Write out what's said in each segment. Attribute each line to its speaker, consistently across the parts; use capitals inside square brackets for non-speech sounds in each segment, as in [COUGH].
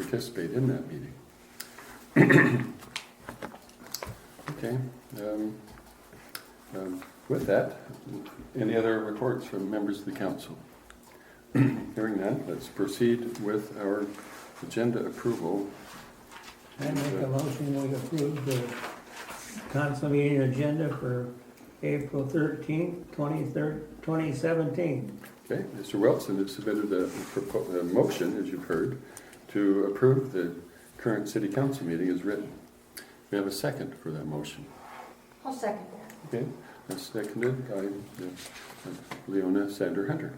Speaker 1: participate in that meeting. Okay, um, um, with that, any other reports from members of the council? Hearing none, let's proceed with our agenda approval.
Speaker 2: I make a motion, we approve the council meeting agenda for April thirteenth, twenty-third, twenty seventeen.
Speaker 1: Okay, Mr. Wilson has submitted a, propo- a motion, as you've heard, to approve the current city council meeting as written. We have a second for that motion.
Speaker 3: I'll second that.
Speaker 1: Okay, that's seconded by uh, Leona Sander Hunter.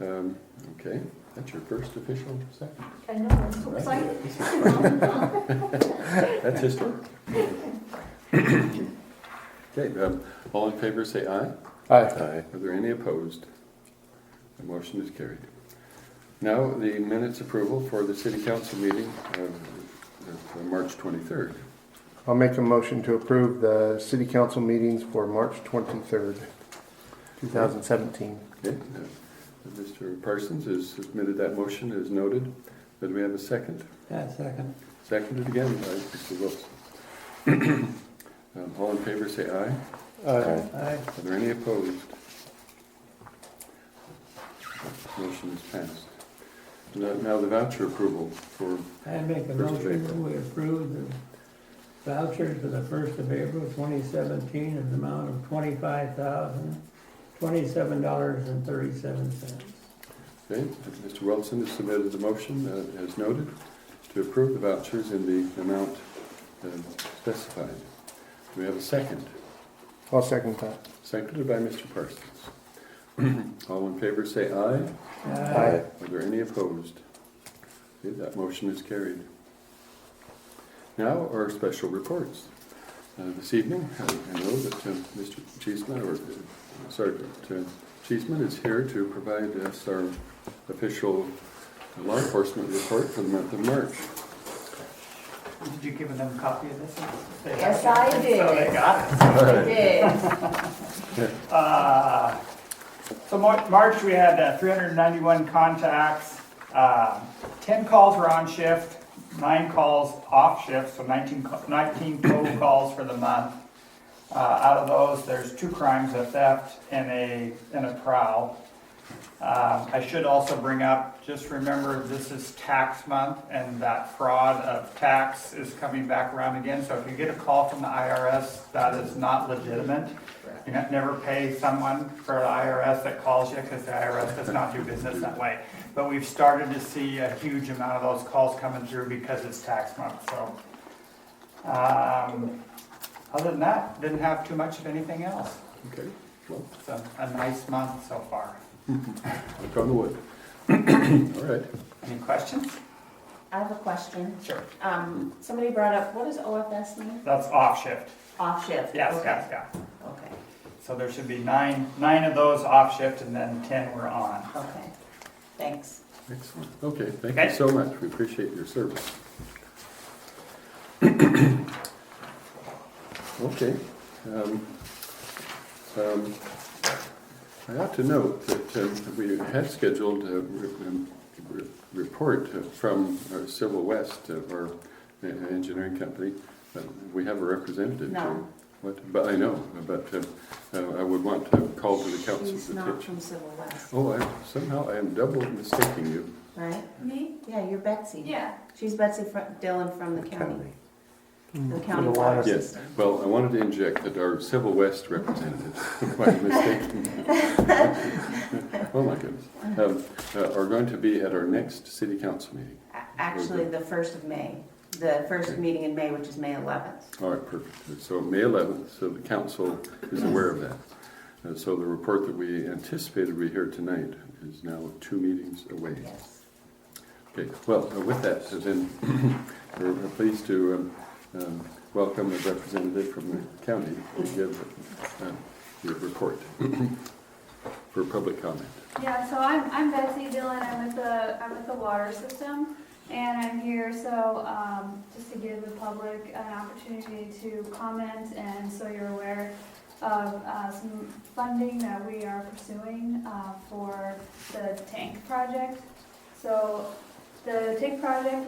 Speaker 1: Um, Okay, that's your first official second.
Speaker 3: I know, I'm so excited.
Speaker 4: [LAUGHS]
Speaker 3: I'll
Speaker 1: That's historic. Okay, um, all in favor, say aye.
Speaker 5: Aye.
Speaker 1: Are there any opposed? The motion is carried. Now, the minutes approval for the city council meeting of of March 23rd.
Speaker 5: I'll make a motion to approve the city council meetings for March 23rd, 2017.
Speaker 1: Okay, uh, Mr. Parsons has submitted that motion as noted. Do we have a second?
Speaker 2: That second.
Speaker 1: Seconded again by Mr. Wilson. [CLEARS THROAT] Um, All in favor, say aye.
Speaker 5: Aye.
Speaker 2: Aye.
Speaker 1: Are there any opposed? Motion is passed. Now- Now the voucher approval for,
Speaker 2: I make a
Speaker 1: First of
Speaker 2: motion, that
Speaker 1: April.
Speaker 2: we approve the vouchers for the first of April, twenty seventeen, in the amount of twenty-five thousand, twenty-seven dollars and thirty-seven cents.
Speaker 1: okay, Mr. Wilson has submitted the motion uh, as noted to approve the vouchers in the amount uh, specified. Do we have a second?
Speaker 5: I'll second that.
Speaker 1: Seconded by Mr. Parsons. [CLEARS THROAT] All in favor, say aye.
Speaker 2: Aye.
Speaker 1: Are there any opposed? Okay, that motion is carried. Now, our special reports. Uh, This evening, I I know that uh, Mr. Cheeseman, or uh, Sergeant uh, Cheeseman is here to provide us our official law enforcement report for the month of March.
Speaker 6: Did you give them a copy of this? They have
Speaker 3: Yes,
Speaker 6: it.
Speaker 3: I
Speaker 6: So
Speaker 3: did.
Speaker 6: they got it.
Speaker 3: Did.
Speaker 6: Uh, So Mar- March, we had uh, 391 contacts. Uh, 10 calls were on shift, nine calls off shift, so 19 co- 19 total calls for the month. Uh, Out of those, there's two crimes, a theft and a, and a prowl. Um, I should also bring up, just remember, this is tax month, and that fraud of tax is coming back around again. So if you get a call from the IRS, that is not legitimate. You ne- never pay someone for the IRS that calls you, because the IRS does not do business that way. But we've started to see a huge amount of those calls coming through because it's tax month, so. um, Other than that, didn't have too much of anything else.
Speaker 1: Okay, well,
Speaker 6: It's a a nice month so far.
Speaker 1: knock on wood. [CLEARS THROAT] All right.
Speaker 6: Any questions?
Speaker 4: I have a question.
Speaker 6: Sure.
Speaker 4: Um, somebody brought up, what does OFS mean?
Speaker 6: That's off shift.
Speaker 4: Off shift?
Speaker 6: Yes,
Speaker 4: Okay.
Speaker 6: yes, yeah.
Speaker 4: Okay,
Speaker 6: So there should be nine, nine of those off shift and then 10 were on.
Speaker 4: okay, thanks.
Speaker 1: Excellent. Okay, thank you
Speaker 6: Okay.
Speaker 1: so much. We appreciate your service. [CLEARS THROAT] Okay. um, um, I ought to note that um, we had scheduled a re- um, re- report from uh, Civil West, uh, our uh, engineering company. but We have a representative.
Speaker 4: No.
Speaker 1: here. What- But I know, but uh, uh, I would want to call to the council's
Speaker 4: She's not
Speaker 1: attention.
Speaker 4: from Civil West,
Speaker 1: Oh, I- somehow I am double mistaking you.
Speaker 4: right?
Speaker 3: Me?
Speaker 4: Yeah, you're Betsy.
Speaker 3: Yeah.
Speaker 4: She's Betsy Fr- Dillon from the county, the county
Speaker 5: the
Speaker 4: water
Speaker 5: water.
Speaker 1: Yes,
Speaker 4: system.
Speaker 1: well, I wanted to inject that our Civil West representative, [LAUGHS] my mistake. Oh, my goodness, um, uh, are going to be at our next city council meeting.
Speaker 4: A- Actually, the first of May, the first meeting in May, which is May eleventh.
Speaker 1: All right, perfect. So May 11th, so the council is aware of that. Uh, So the report that we anticipated we hear tonight is now two meetings away.
Speaker 4: Yes.
Speaker 1: Okay, well, uh, with that, so then, [CLEARS THROAT] we're we're pleased to um, um, welcome a representative from the county to give uh, your report [CLEARS THROAT] for public comment.
Speaker 7: Yeah, so I'm, I'm Betsy Dillon, I'm with the, I'm with the water system, and I'm here, so, um, just to give the public an opportunity to comment, and so you're aware of, uh, some funding that we are pursuing, uh, for the tank project. So, the tank project,